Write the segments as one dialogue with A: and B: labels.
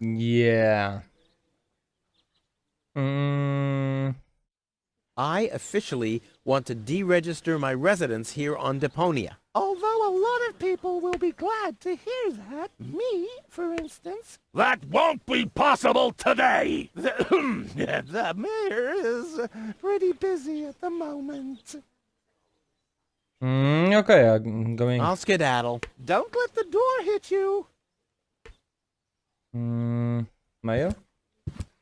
A: Yeah. Mm,
B: I officially want to deregister my residence here on Deponia.
C: Although a lot of people will be glad to hear that, me, for instance,
D: That won't be possible today!
C: the, the mayor is uh, pretty busy at the moment.
A: mm, okay, I'm going.
B: I'll skedaddle.
C: Don't let the door hit you.
A: Mm, Mayo?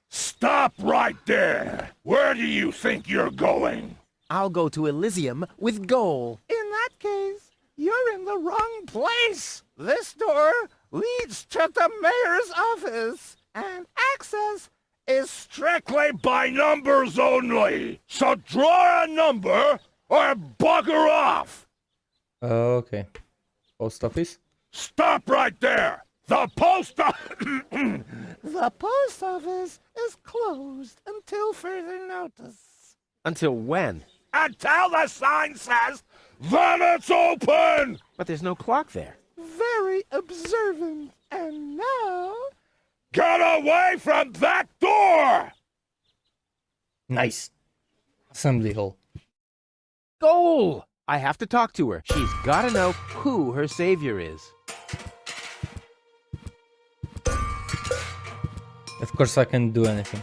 D: Stop right there! Where do you think you're going?
B: I'll go to Elysium with Goal.
C: In that case, you're in the wrong place. This door leads to the mayor's office, and access is strict.
D: Play by numbers only! So draw a number or bugger off!
A: Uh, Okay. Post office?
D: Stop right there! The post o-
C: The post office is closed until further notice.
B: Until when?
D: until the sign says that it's open!
B: But there's no clock there.
C: Very observant. And now,
D: Get away from that door!
A: Nice. Assembly hall.
B: Goal! I have to talk to her. She's gotta know who her savior is.
A: Of course, I can do anything.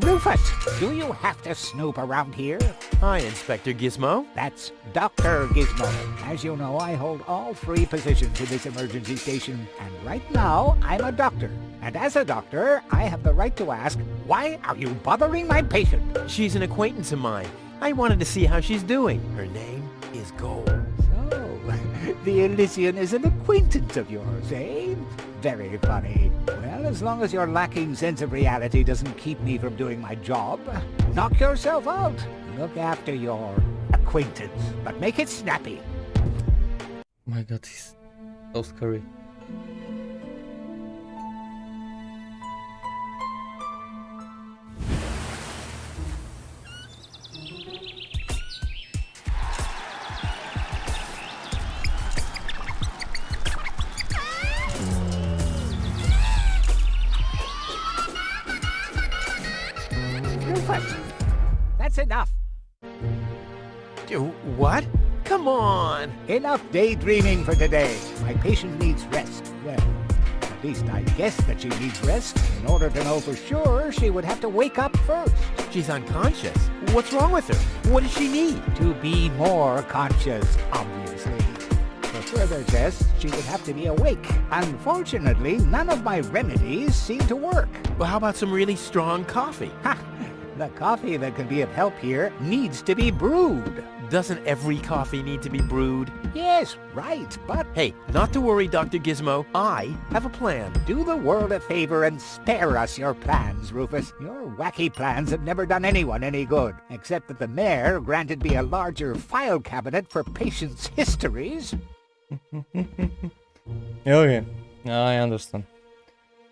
E: Rufus, do you have to snoop around here?
B: Hi, Inspector Gizmo.
E: That's Dr. Gizmo. As you know, I hold all three positions in this emergency station, and right now, I'm a doctor. And as a doctor, I have the right to ask, why are you bothering my patient?
B: She's an acquaintance of mine. I wanted to see how she's doing. Her name is Goal.
E: So, the Elysian is an acquaintance of yours, eh? Very funny. Well, as long as your lacking sense of reality doesn't keep me from doing my job, knock yourself out. Look after your acquaintance, but make it snappy.
A: Oh My god, he's so scary.
E: Rufus, that's enough.
B: Do what? Come on!
E: Enough daydreaming for today. My patient needs rest. Well, at least I guess that she needs rest. In order to know for sure, she would have to wake up first.
B: She's unconscious. What's wrong with her? What does she need?
E: To be more conscious, obviously. For further tests, she would have to be awake. Unfortunately, none of my remedies seem to work.
B: Well, how about some really strong coffee?
E: Ha! The coffee that can be of help here needs to be brewed.
B: Doesn't every coffee need to be brewed?
E: Yes, right, but
B: Hey, not to worry, Dr. Gizmo. I have a plan.
E: Do the world a favor and spare us your plans, Rufus. Your wacky plans have never done anyone any good, except that the mayor granted me a larger file cabinet for patients' histories.
A: Okay. I understand.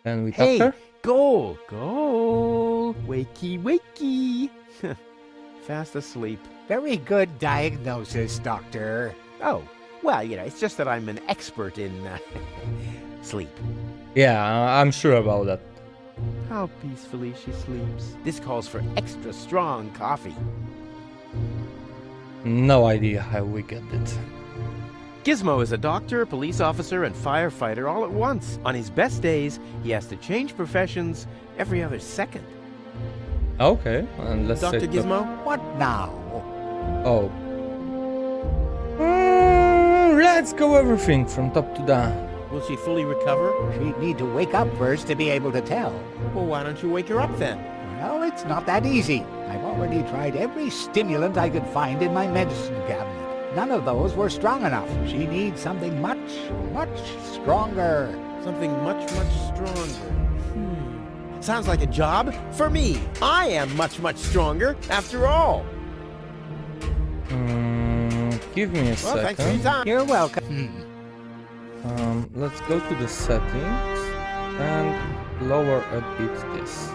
A: Then we
B: Hey,
A: doctor?
B: goal, goal. Wakey, wakey. Fast asleep.
E: Very good diagnosis, Doctor.
B: Oh, well, you know, it's just that I'm an expert in uh, sleep.
A: Yeah, I- I'm sure about that.
B: How peacefully she sleeps. This calls for extra strong coffee.
A: No idea how we get it.
B: Gizmo is a doctor, police officer, and firefighter all at once. On his best days, he has to change professions every other second.
A: Okay, and let's
B: Dr.
A: take the-
B: Gizmo?
E: What now?
A: Oh. Mm, let's go everything from top to down.
B: Will she fully recover?
E: She'd need to wake up first to be able to tell.
B: Well, why don't you wake her up then?
E: Well, it's not that easy. I've already tried every stimulant I could find in my medicine cabinet. None of those were strong enough. She needs something much, much stronger.
B: Something much, much stronger. Hmm. Sounds like a job for me. I am much, much stronger after all.
A: Mm, give me a
B: Well, thanks for your
A: second.
B: time.
E: You're welcome.
A: Um, let's go to the settings and lower a bit this.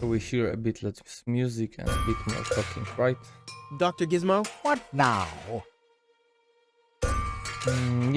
A: So we hear a bit less music and a bit more talking, right?
B: Dr. Gizmo?
E: What now?
A: Mm,